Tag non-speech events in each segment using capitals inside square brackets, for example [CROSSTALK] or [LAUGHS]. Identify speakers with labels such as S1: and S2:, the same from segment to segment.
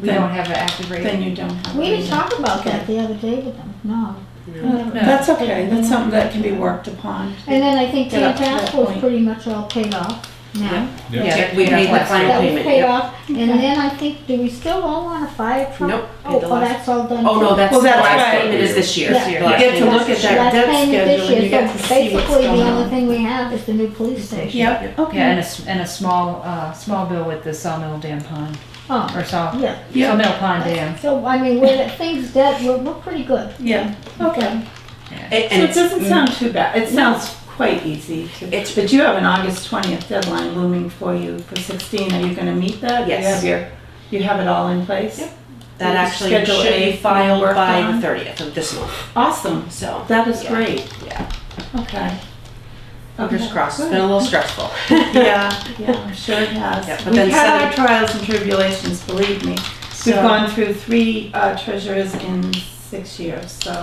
S1: we
S2: Then-
S1: don't have an active
S2: Then
S1: rating.
S2: you don't have. a
S3: We didn't
S2: reason.
S3: talk about that the other day with them, no. Um,
S2: No, That's okay, that's something that can be worked upon.
S3: And then I think
S2: Get up to
S3: Tantas
S2: that
S3: was
S2: point.
S3: pretty much all paid off now.
S4: Yeah.
S1: Yeah,
S5: Yeah,
S1: that
S5: we
S1: paid off
S5: made the
S1: last
S5: final
S3: That was
S5: payment.
S3: paid
S5: yep.
S3: off, and then I think, do we still all want a fire truck?
S5: Nope, we
S3: Oh,
S5: did the
S3: oh,
S5: last-
S3: that's all done.
S5: Oh, no,
S3: too.
S5: that's,
S2: Well,
S5: the
S2: that's
S5: last
S2: right.
S5: payment is this year.
S3: Yeah.
S5: The
S1: You
S5: last
S1: get to
S5: payment.
S1: look at that
S3: Last
S1: debt
S3: payment
S1: schedule
S3: this
S1: and
S3: year,
S1: you get to
S3: so
S1: see what's
S3: Basically,
S1: going
S3: the
S1: on.
S3: only thing we have is the new police station.
S2: Yep,
S1: Yeah, and a,
S2: okay.
S1: s- and a small, uh, small bill with the Sawmill Dam Pond,
S3: Oh,
S1: or Saw,
S3: yeah.
S2: Yeah,
S1: Sawmill Pond Dam.
S3: So, I mean, we're, at things that, we're, we're pretty good.
S2: yeah, okay.
S5: And-
S2: So
S5: And
S2: it
S5: it's, mm.
S2: doesn't sound too bad, it sounds quite easy to,
S5: It's-
S2: but you have an August twentieth deadline looming for you for sixteen, are you gonna meet that?
S5: Yes.
S2: You have your, you have it all in place?
S5: Yep. that
S2: you
S5: actually
S2: schedule
S5: should
S2: A
S5: be
S2: and
S5: filed
S2: work
S5: by
S2: on?
S5: the thirtieth of this month,
S2: Awesome,
S5: so.
S2: that is
S5: Yeah.
S2: great.
S5: Yeah.
S2: Okay.
S5: Fingers
S2: Okay,
S5: crossed, it's
S2: good.
S5: been a little stressful.
S2: [LAUGHS] Yeah, yeah, I'm sure it
S5: Yeah,
S2: has.
S5: but
S2: We've
S5: then
S2: had our
S5: seven-
S2: trials and tribulations, believe me. We've
S5: So-
S2: gone through three uh, treasurers in six years, so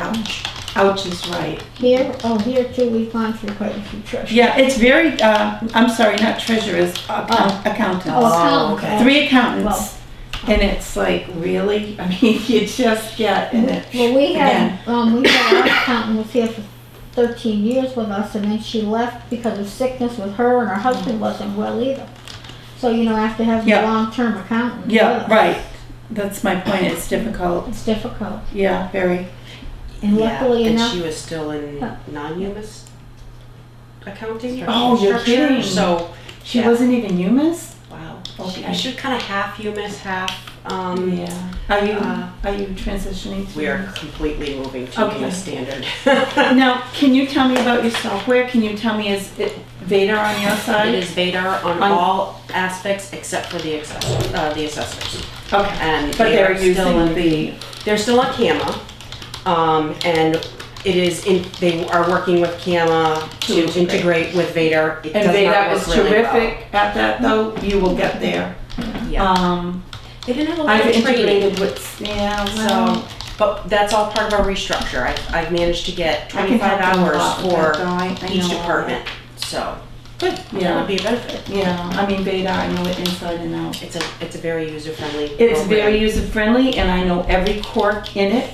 S2: ouch is right.
S3: Here, oh, here too, we've gone through quite a few trips.
S2: Yeah, it's very, uh, I'm sorry, not treasurers, account-
S3: Oh,
S2: accountants.
S3: account,
S5: okay.
S3: uh,
S2: Three
S3: Well.
S2: accountants. And it's like, really? [LAUGHS] I mean, you just get in it.
S3: Well, we
S2: Again.
S3: had, um, we had our accountant was here for thirteen years with us, and then she left because of sickness with her, and her husband wasn't well either. So, you know, after having a
S2: Yeah.
S3: long-term accountant.
S2: Yeah,
S3: with us,
S2: right. That's my point. It's difficult.
S3: It's difficult,
S2: Yeah, very.
S3: and
S5: Yeah,
S3: luckily
S5: and
S3: enough,
S5: she was still in
S3: Huh.
S5: non-humus accounting.
S2: Oh, you're
S5: structure,
S2: kidding.
S5: So,
S2: She
S5: Yeah.
S2: wasn't even humus?
S5: wow.
S2: Okay.
S5: She, she was kind of half humus, half, um,
S2: Yeah. Are you,
S5: Uh,
S2: are you transitioning to?
S5: we are completely moving to
S2: Okay.
S5: the standard.
S2: Now, can you tell me about yourself? Where can you tell me is it Vader on your
S5: [LAUGHS] It
S2: side?
S5: is Vadar on
S2: On-
S5: all aspects except for the accessor, uh, the assessors.
S2: Okay.
S5: And
S2: But
S5: they
S2: they're
S5: are still
S2: using
S5: in,
S2: the,
S5: they're still on CAMA. Um, and it is in, they are working with CAMA
S2: To
S5: to
S2: integrate.
S5: integrate with Vadar. It
S2: and
S5: does
S2: Vader
S5: not
S2: is
S5: work really well.
S2: terrific at that though. You will get there.
S5: Yeah.
S2: Um,
S5: They didn't have a lot
S2: I've
S5: of training.
S2: integrated with, yeah,
S5: So,
S2: well.
S5: but that's all part of our restructure. I've, I've managed to get
S2: I can help
S5: twenty-five
S2: them a
S5: hours
S2: lot with that,
S5: for
S2: though. I- I know
S5: each
S2: all that.
S5: department, so that would
S2: Yeah,
S5: be a benefit.
S2: yeah. I mean, Vader, I know it inside and out.
S5: It's a, it's a very user-friendly.
S2: It's very
S5: program.
S2: user friendly and I know every quirk in it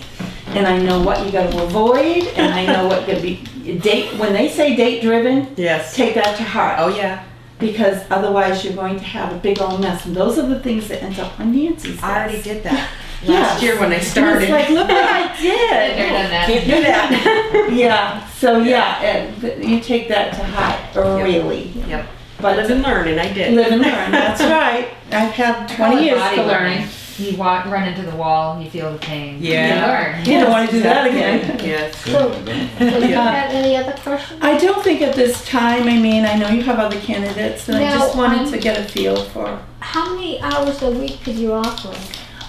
S2: and I know what you gotta avoid and I know what could be, date, when they say date driven,
S5: Yes.
S2: take that to heart.
S5: Oh, yeah.
S2: Because otherwise you're going to have a big old mess and those are the things that end up on Nancy's desk.
S5: I already
S2: [LAUGHS]
S5: did that
S2: Yeah.
S5: last year when I
S2: And It's
S5: [LAUGHS] started.
S2: like, look what I
S1: They've
S2: did.
S1: done that.
S5: Can't do that. [LAUGHS]
S2: Yeah, so yeah, and th- you take that to heart, really.
S5: Yep. I
S2: But
S5: live and learn, and I did.
S2: live and learn,
S5: [LAUGHS]
S2: that's right. I've had
S1: Call it
S2: twenty years
S1: body
S2: to
S1: learning.
S2: learn.
S1: You walk, run into the wall, you feel the pain.
S5: Yeah.
S1: You learn.
S2: You don't wanna do that again.
S5: Yes.
S3: so,
S2: [LAUGHS]
S3: so you
S2: Yeah.
S3: have any other questions?
S2: I don't think at this time, I mean, I know you have other candidates, and I
S3: No,
S2: just wanted
S3: I'm-
S2: to get a feel for.
S3: How many hours a week could you offer?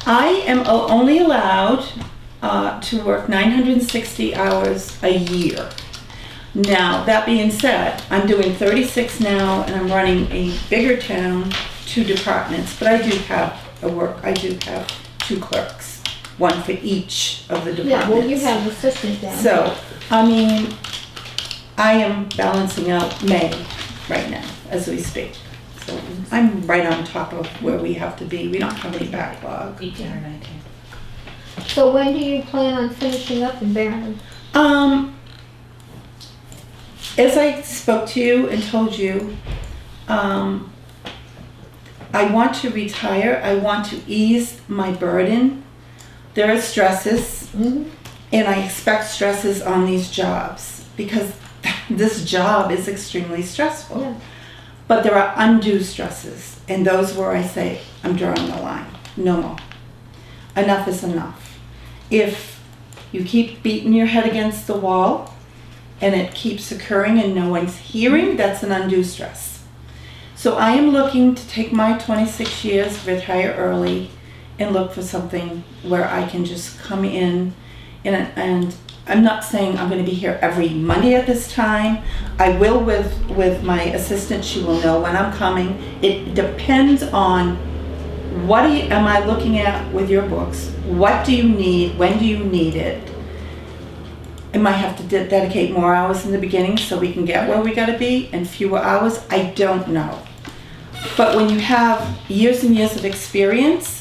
S2: I am o- only allowed uh, to work 960 hours a year. Now, that being said, I'm doing 36 now, and I'm running a bigger town, two departments, but I do have a work, I do have two clerks, one for each of the departments.
S3: Yeah, well, you have assistants down.
S2: So, I mean, I am balancing out May right now as we speak. So I'm right on top of where we have to be. We don't have any backlog.
S1: Eighteen or nineteen.
S3: So when do you plan on finishing up in Barron?
S2: Um, as I spoke to you and told you, um, I want to retire. I want to ease my burden. There are stresses.
S3: Mm-hmm.
S2: and I expect stresses on these jobs because [LAUGHS] this job is extremely stressful.
S3: Yeah.
S2: But there are undue stresses, and those where I say, I'm drawing the line. No more. Enough is enough. If you keep beating your head against the wall and it keeps occurring and no one's hearing, that's an undue stress. So I am looking to take my 26 years, retire early, and look for something where I can just come in and, and I'm not saying I'm going to be here every Monday at this time. I will with with my assistant. She will know when I'm coming. It depends on what do you, am I looking at with your books. What do you need? When do you need it? I might have to de- dedicate more hours in the beginning so we can get where we got to be, and fewer hours. I don't know. But when you have years and years of experience,